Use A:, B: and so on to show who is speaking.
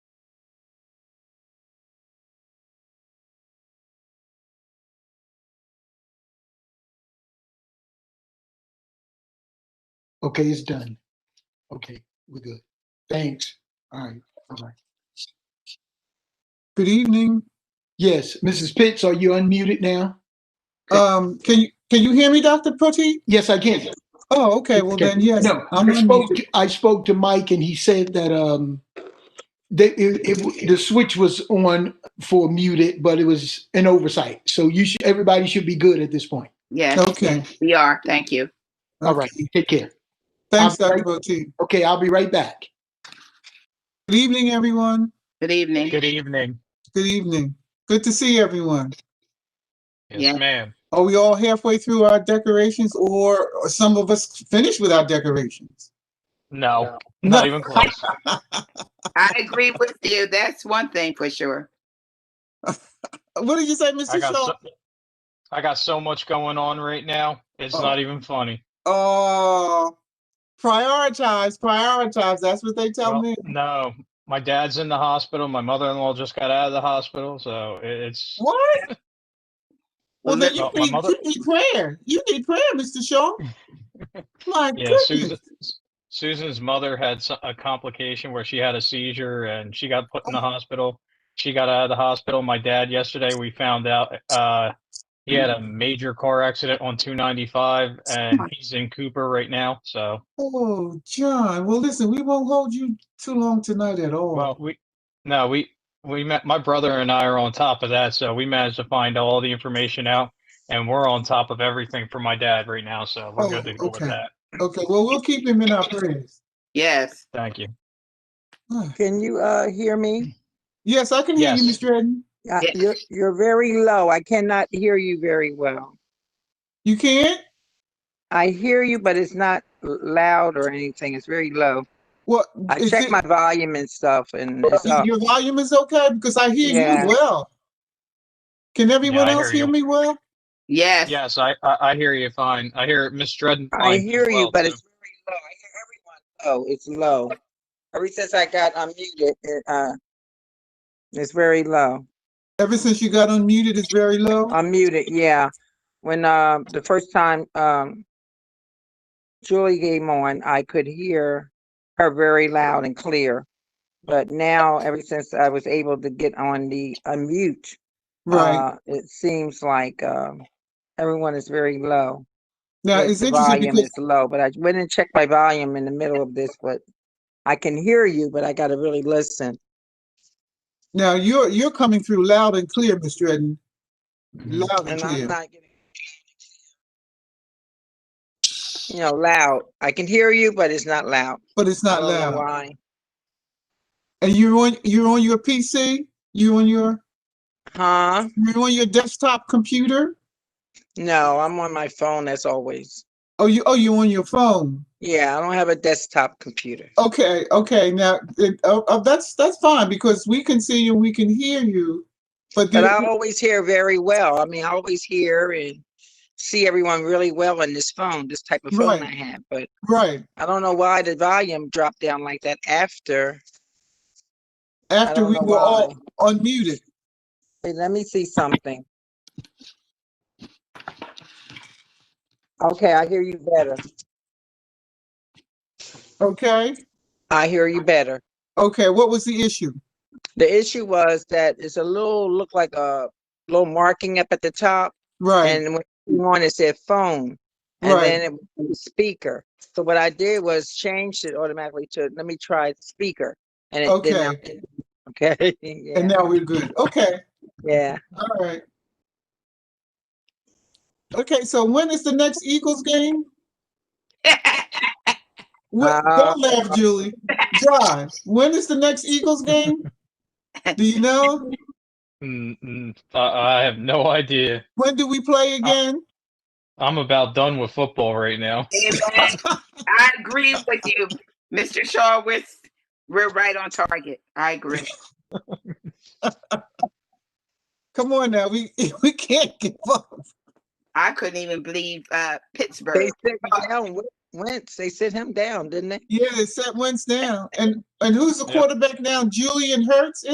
A: Okay, it's done. Okay, we're good. Thanks. All right, bye-bye.
B: Good evening.
A: Yes, Mrs. Pitts, are you unmuted now? e-
B: Um, can you, can you hear me, Dr. Putty?
A: Yes, I can.
B: Oh, okay, well then, yes.
A: No,
B: I'm
A: I spoke,
B: unmuted.
A: to- I spoke to Mike and he said that, um, that it, it, the switch was on for muted, but it was an oversight. So you should, everybody should be good at this point.
C: Yes,
B: Okay,
C: we are. Thank you.
A: All right, take care.
B: thanks,
A: I'm-
B: Dr. Putty.
A: Okay, I'll be right back.
B: Good evening, everyone.
C: Good evening.
D: Good e- evening.
B: Good evening. Good to see everyone.
C: Yeah.
D: Yes, ma'am.
B: Are we all halfway through our decorations or are some of us finished with our decorations?
D: No,
B: No.
D: not even close.
C: I agree with you. That's one thing for sure.
B: What did you say,
D: I
B: Mr.
D: got,
B: Schultz?
D: so, I got so much going on right now. It's
B: Oh.
D: not even funny.
B: Oh, prioritize, prioritize. That's what they tell
D: Well,
B: me.
D: No, my dad's in the hospital. My mother-in-law just got out of the hospital, so it- it's
B: What? Well, then you
D: Well, uh, my
B: need,
D: mother-
B: you need prayer. You need prayer, Mr. Shaw. My
D: yeah. Susan,
B: goodness.
D: Susan's mother had s- a complication where she had a seizure and she got put in
B: Oh.
D: the hospital. She got out of the hospital. My dad yesterday we found out uh, he had a major car accident on 295 and he's in Cooper right now. So.
B: Oh, John. Well, listen, we won't hold you too long tonight at all.
D: Well, we, no, we, we met, my brother and I are on top of that, so we managed to find all the information out. And we're on top of everything for my dad right now, so we're good
B: Oh,
D: to go with
B: okay.
D: that.
B: okay. Well, we'll keep him in our prayers.
C: Yes.
D: Thank you.
B: Ah,
E: Can you uh hear
B: Mm.
E: me?
B: Yes, I can hear you,
D: Yes.
B: Mr. Redden.
E: Uh,
C: Yes.
E: You're, you're very low. I cannot hear you very well.
B: You can't?
E: I hear you, but it's not l- loud or anything. It's very low.
B: What?
E: I
B: is
E: checked
B: it-
E: my volume and stuff and it's uh,
B: y-
E: up.
B: Your volume is okay because I hear
E: Yeah.
B: you well. Can everyone
D: I
B: else hear
D: hear you.
B: me well?
C: Yes.
D: Yes, I, I, I hear you fine. I hear Miss Dredden.
E: I
D: fine as
E: hear you,
D: well,
E: but
D: too.
E: it's very low. I hear everyone low. It's low. Ever since I got unmuted, it, uh, it's very low.
B: Ever since you got unmuted, it's very low.
E: Uh, Unmuted, yeah. When uh, the first time um, Julie came on, I could hear her very loud and clear. But now, ever since I was able to get on the unmute,
B: right.
E: uh, it seems like um, everyone is very low.
B: Now,
E: Yes,
B: it's
E: the
B: interesting
E: volume
B: because
E: is low, but I went and checked my volume in the middle of this, but I can hear you, but I got to really listen.
B: now you're you're coming through loud and clear, Mr. Redden.
D: Mhm.
B: Loud and
E: And I'm
B: clear.
E: not getting. You know, loud. I can hear you, but it's not loud.
B: but it's
E: I
B: not
E: don't
B: loud.
E: know Why?
B: And you're on you're on your PC? You on your
E: Huh?
B: you on your desktop computer?
E: No, I'm on my phone as always.
B: Oh you oh you on your phone.
E: Yeah, I don't have a desktop computer.
B: Okay, okay. Now it, oh, oh, that's that's fine because we can see you, we can hear you. But,
E: But
B: the-
E: I always hear very well. I mean, I always hear and see everyone really well on this phone, this type of phone I
B: Right.
E: have. But
B: right
E: I don't know why the volume dropped down like that after. I
B: after
E: don't
B: we
E: know
B: were all
E: why.
B: unmuted.
E: Wait, let me see something. Okay, I hear you better.
B: Okay,
E: I hear you better.
B: okay. What was the issue?
E: The issue was that it's a little, look like a little marking up at the top.
B: Right,
E: And when you on, it said phone. And
B: Right.
E: then it was speaker. So what I did was changed it automatically to, let me try speaker. And it did not. Okay,
B: and
E: yeah,
B: now we're good. Okay,
E: yeah.
B: all right. Okay, so when is the next Eagles game? What,
E: Uh,
B: don't laugh, Julie. John, when is the next Eagles game? Do you know?
D: Mm, mm, I, I have no idea.
B: When do we play again?
D: I'm about done with football right now.
C: Amen. I agree with you, Mr. Shaw. We're, we're right on target. I agree.
B: Come on now, we we can't give up.
C: I couldn't even believe uh,
E: They
C: Pittsburgh.
E: sit down, Wen- Wentz, they sit him down, didn't they?
B: Yeah, they set Wentz down, and and who's the
D: Yeah.
B: quarterback now? Julian Hurts